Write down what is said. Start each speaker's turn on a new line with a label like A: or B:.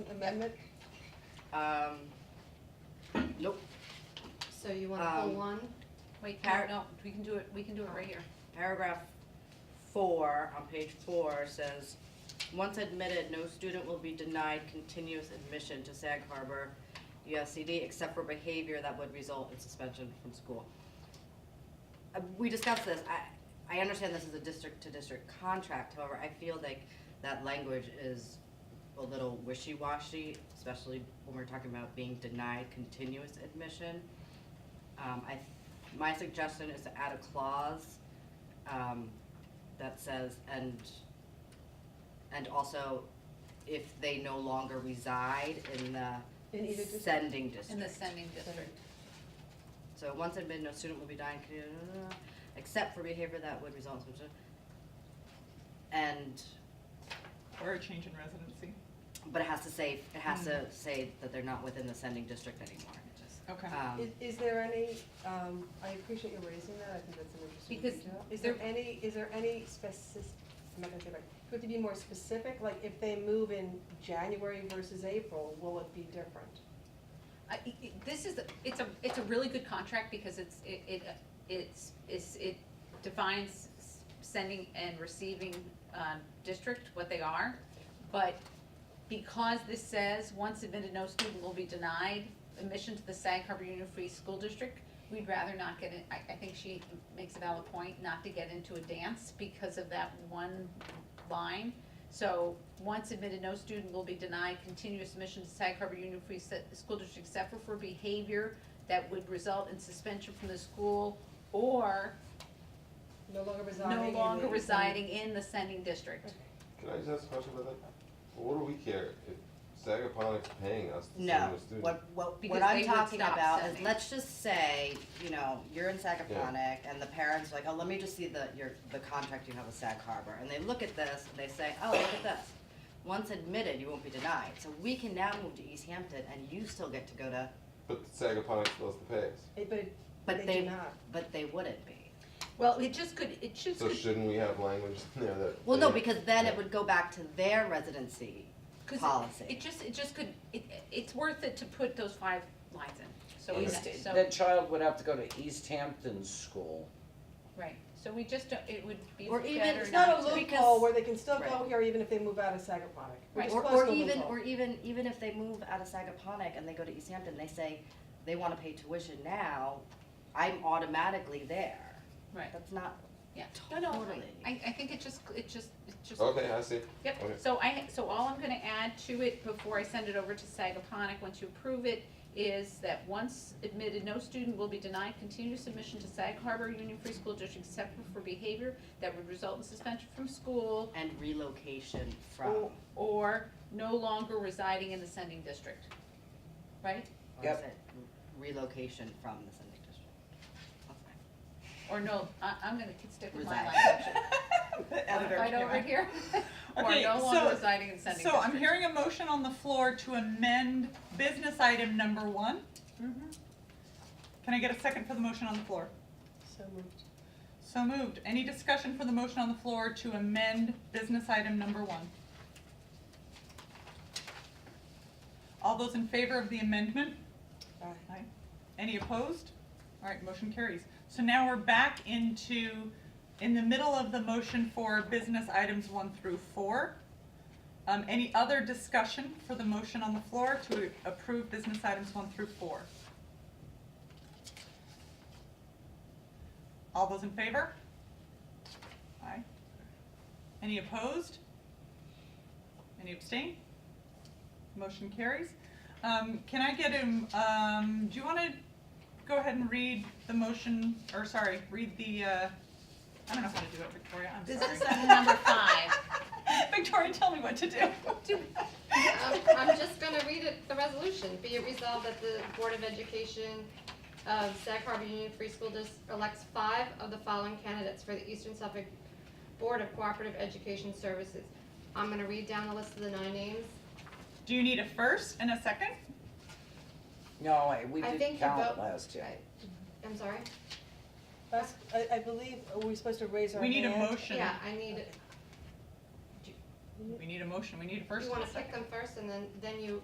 A: amendment?
B: Um, nope,
A: So you want to pull
B: Um,
A: one?
C: Wait,
B: Par-
C: no, no, we can do it, we can do it right here.
B: paragraph four on page four says, once admitted, no student will be denied continuous admission to Sag Harbor USCD except for behavior that would result in suspension from school. Uh, We discussed this, I, I understand this is a district-to-district contract, however, I feel like that language is a little wishy-washy, especially when we're talking about being denied continuous admission. Um, I, my suggestion is to add a clause, um, that says, and, and also if they no longer reside in the
A: In either district?
B: sending district.
C: In the sending district.
B: So once admitted, no student will be dying, except for behavior that would result in, and,
D: Or a change in residency.
B: but it has to say, it has to say that they're not within the sending district anymore.
D: Okay.
C: Uh,
B: Um,
A: Is, is there any, um, I appreciate you raising that, I think that's an interesting
C: Because
A: detail. Is there
C: there-
A: any, is there any specific, I'm not gonna say right, do you have to be more specific? Like, if they move in January versus April, will it be different?
C: I- i- i- This is, it's a, it's a really good contract because it's, it, it, uh, it's, it's, it defines s- sending and receiving, um, district, what they are. But because this says, once admitted, no student will be denied admission to the Sag Harbor Union Free School District, we'd rather not get in, I, I think she makes a valid point, not to get into a dance because of that one line. So, once admitted, no student will be denied continuous admission to Sag Harbor Union Free Se- School District except for for behavior that would result in suspension from the school or
A: No longer residing in
C: no
A: the.
C: longer residing in the sending district.
E: Can I just ask a question about that? Well, what do we care if Sagaponic's paying us to
B: No,
E: send a student?
B: what, what,
C: Because
B: what
C: they
B: I'm
C: would
B: talking
C: stop
B: about is,
C: sending.
B: let's just say, you know, you're in Sagaponic and the parents are like, oh, let me just see the, your, the contract you have with Sag Harbor. And they look at this and they say, oh, look at this. Once admitted, you won't be denied. So we can now move to East Hampton and you still get to go to,
E: But Sagaponic still has to pay us.
A: Eh, But,
B: but
A: it- they do
B: they,
A: not.
B: but they wouldn't be.
C: Well, it just could, it just
E: So
C: could,
E: shouldn't we have language in there that?
B: Well, no,
E: they-
B: because then it would go back to their residency
C: 'cause it-
B: policy.
C: it just, it just could, it, it's worth it to put those five lines in, so we,
F: East,
C: so,
F: that child would have to go to East Hampton School.
C: right, so we just don't, it would be
B: Or even-
C: better
A: It's
B: not
A: not a
C: to-
A: loophole
B: because-
A: where they can still go
B: Right.
A: here even if they move out of Sagaponic, which
C: Right.
A: is
B: Or,
A: close
B: or
A: to a
B: even,
A: loophole.
B: or even, even if they move out of Sagaponic and they go to East Hampton, they say they wanna pay tuition now, I'm automatically there.
C: Right,
B: That's not,
C: yeah, no, no,
B: Totally.
C: I, I think it just, it just, it just.
E: Okay, I see.
C: Yep,
E: Okay.
C: so I, so all I'm gonna add to it before I send it over to Sagaponic, once you approve it, is that once admitted, no student will be denied continuous admission to Sag Harbor Union Free School District except for behavior that would result in suspension from school
B: and relocation from,
C: or, or no longer residing in the sending district. Right?
B: or is
F: Yep.
B: it relocation from the sending district? That's fine.
C: Or no, I, I'm gonna stick with my
B: Reside.
C: line section.
D: Uh, The editor
C: Right
D: came
C: over
D: out.
C: here, or
D: Okay,
C: no longer
D: so-
C: residing in sending district.
D: So I'm hearing a motion on the floor to amend business item number one.
C: Mhm.
D: Can I get a second for the motion on the floor?
A: So moved.
D: So moved. Any discussion for the motion on the floor to amend business item number one? All those in favor of the amendment?
A: Aye.
D: Aye. Any opposed? All right, motion carries. So now we're back into, in the middle of the motion for business items one through four. Um, any other discussion for the motion on the floor to approve business items one through four? All those in favor? Aye. Any opposed? Any abstain? Motion carries. Um, can I get him, um, do you wanna go ahead and read the motion, or sorry, read the, uh, I don't know how to do it, Victoria, I'm
C: This
D: sorry.
C: is number five.
D: Victoria, tell me what to do.
G: Um, I'm just gonna read it, the resolution. Be it resolved that the Board of Education of Sag Harbor Union Free School District elects five of the following candidates for the Eastern Suffolk Board of Cooperative Education Services. I'm gonna read down the list of the nine names.
D: Do you need a first and a second?
F: No, I- we
G: I
F: didn't
G: think you
F: count
G: vote-
F: last year.
G: I- I'm sorry?
A: That's, I, I believe, are we supposed to raise our
D: We
A: hand?
D: need a motion.
G: Yeah, I need,
D: We need a motion, we need a first
G: You
D: and
G: wanna
D: a second.
G: pick them first and then, then you